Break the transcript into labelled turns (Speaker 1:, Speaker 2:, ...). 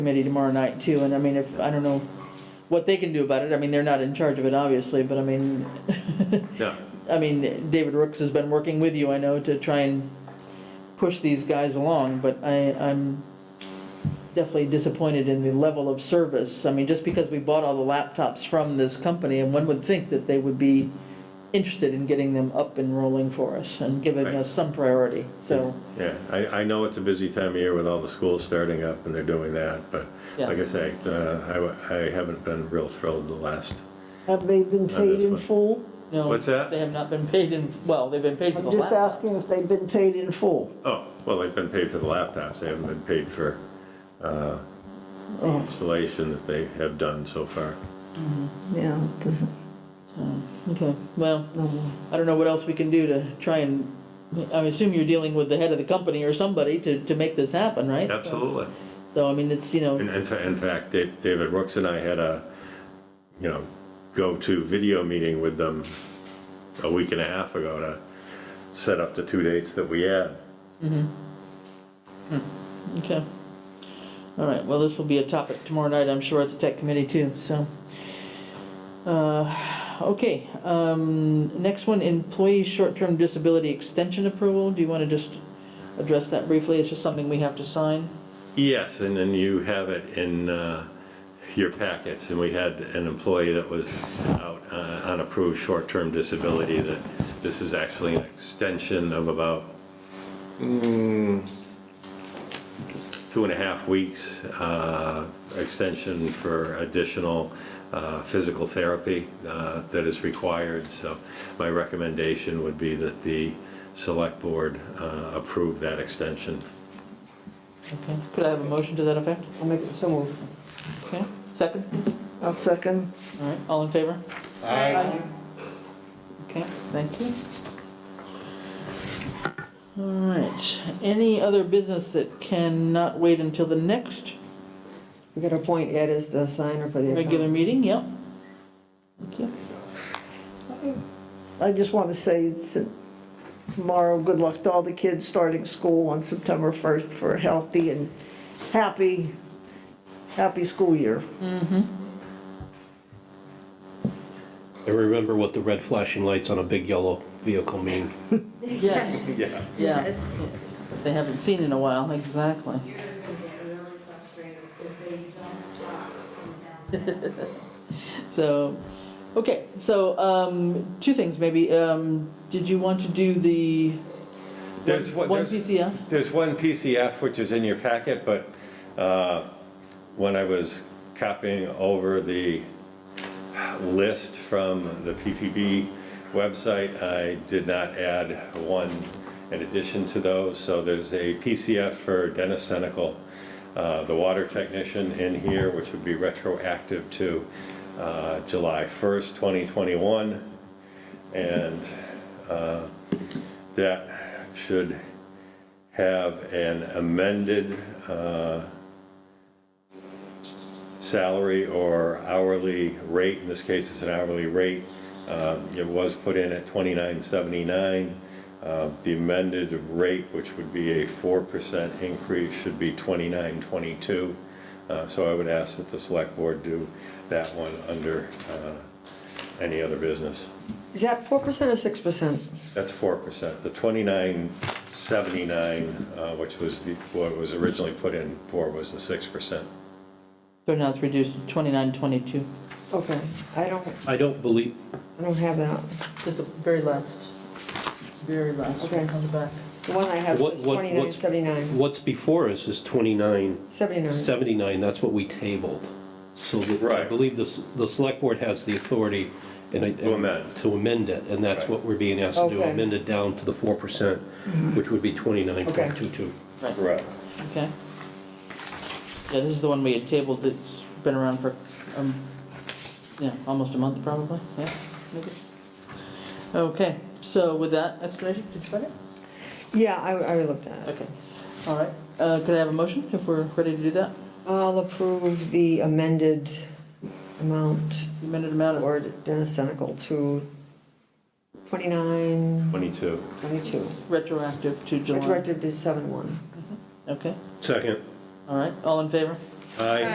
Speaker 1: committee tomorrow night too, and I mean, if, I don't know what they can do about it, I mean, they're not in charge of it, obviously, but I mean,
Speaker 2: Yeah,
Speaker 1: I mean, David Rooks has been working with you, I know, to try and push these guys along, but I, I'm definitely disappointed in the level of service, I mean, just because we bought all the laptops from this company, and one would think that they would be interested in getting them up and rolling for us and giving
Speaker 2: Right.
Speaker 1: us some priority, so,
Speaker 2: yeah, I, I know it's a busy time of year with all the schools starting up and they're doing that, but
Speaker 1: Yeah.
Speaker 2: like I say, uh, I, w- I haven't been real thrilled the last,
Speaker 3: Have they been paid
Speaker 2: this
Speaker 3: in
Speaker 2: one.
Speaker 3: full?
Speaker 1: no.
Speaker 2: What's that?
Speaker 1: Oh, They have not been paid in, well, they've been paid for the
Speaker 3: I'm
Speaker 1: laptops.
Speaker 3: just asking if they've been paid in full.
Speaker 2: oh, well, they've been paid for the laptops, they haven't been paid for, uh, the
Speaker 1: Oh.
Speaker 2: installation that they have done so far.
Speaker 3: Yeah, it doesn't,
Speaker 1: Okay, well,
Speaker 3: no.
Speaker 1: I don't know what else we can do to try and, I assume you're dealing with the head of the company or somebody to, to make this happen, right? So it's-
Speaker 2: Absolutely.
Speaker 1: So, I mean, it's, you know,
Speaker 2: And in, fa- in fact, Da- David Rooks and I had a, you know, go-to video meeting with them a week and a half ago to set up the two dates that we had.
Speaker 1: okay. All right, well, this will be a topic tomorrow night, I'm sure, at the tech committee too, so. Uh, okay, um, next one, employee short-term disability extension approval, do you wanna just address that briefly? It's just something we have to sign?
Speaker 2: Yes, and then you have it in uh, your packets, and we had an employee that was out uh, on approved short-term disability, that this is actually an extension of about mm, two and a half weeks, uh, extension for additional uh, physical therapy uh, that is required, so my recommendation would be that the select board uh, approve that extension.
Speaker 1: Okay, could I have a motion to that effect?
Speaker 3: I'll make it so moved.
Speaker 1: Okay, second, please?
Speaker 3: I'll second.
Speaker 1: All right, all in favor?
Speaker 3: Aye.
Speaker 1: Okay, thank you. All right, any other business that cannot wait until the next
Speaker 4: We gotta appoint Ed as the signer for the
Speaker 1: regular
Speaker 4: account.
Speaker 1: meeting? Yep. Thank you.
Speaker 3: I just want to say that tomorrow, good luck to all the kids starting school on September 1st for a healthy and happy, happy school year.
Speaker 5: And remember what the red flashing lights on a big yellow vehicle mean.
Speaker 1: Yes,
Speaker 2: Yeah.
Speaker 1: yeah,
Speaker 6: Yes.
Speaker 1: if they haven't seen in a while, exactly.
Speaker 6: You're gonna get really frustrated if they don't stop coming down that.
Speaker 1: So, okay, so, um, two things maybe, um, did you want to do the
Speaker 2: There's
Speaker 1: one
Speaker 2: one-
Speaker 1: one
Speaker 2: there's-
Speaker 1: PCF?
Speaker 2: There's one PCF which is in your packet, but uh, when I was copying over the list from the PPB website, I did not add one in addition to those. So there's a PCF for Dennis Senical, uh, the water technician in here, which would be retroactive to uh, July 1st, 2021. And uh, that should have an amended uh, salary or hourly rate, in this case, it's an hourly rate. Um, It was put in at $29.79. Uh, The amended rate, which would be a 4% increase, should be $29.22. Uh, So I would ask that the select board do that one under uh, any other business.
Speaker 4: Is that four percent or six percent?
Speaker 2: That's four percent, the twenty-nine seventy-nine, uh, which was the, what was originally put in for was the six percent.
Speaker 1: So now it's reduced to twenty-nine, twenty-two,
Speaker 4: Okay, I don't,
Speaker 5: I don't believe,
Speaker 4: I don't have that.
Speaker 1: at the very last, very last,
Speaker 4: Okay.
Speaker 1: on the back.
Speaker 4: The one I have
Speaker 5: What-
Speaker 4: is
Speaker 5: what-
Speaker 4: twenty-nine
Speaker 5: what's-
Speaker 4: seventy-nine,
Speaker 5: what's before us is twenty-nine
Speaker 4: seventy-nine.
Speaker 5: seventy-nine, that's what we tabled. So the- I
Speaker 2: Right.
Speaker 5: believe the, s- the select board has the authority and. I-
Speaker 2: To amend.
Speaker 5: To amend it, and that's
Speaker 2: Right.
Speaker 5: what we're being asked to do,
Speaker 4: Okay.
Speaker 5: amend it down to the four percent, which would be twenty-nine point two-two.
Speaker 2: Correct.
Speaker 1: Okay. Yeah, this is the one we had tabled that's been around for, um, yeah, almost a month probably, yeah, maybe. Okay, so with that explanation, did you find it?
Speaker 4: Yeah, I, I looked at it.
Speaker 1: Okay, all right, uh, could I have a motion if we're ready to do that?
Speaker 4: I'll approve the amended amount
Speaker 1: The Amended amount of,
Speaker 4: for Dennis Senical to twenty-nine
Speaker 2: Twenty-two.
Speaker 4: twenty-two.
Speaker 1: retroactive to July,
Speaker 4: Retroactive to seven-one.
Speaker 1: okay,
Speaker 5: Second,
Speaker 1: all right, all in favor?
Speaker 2: Aye.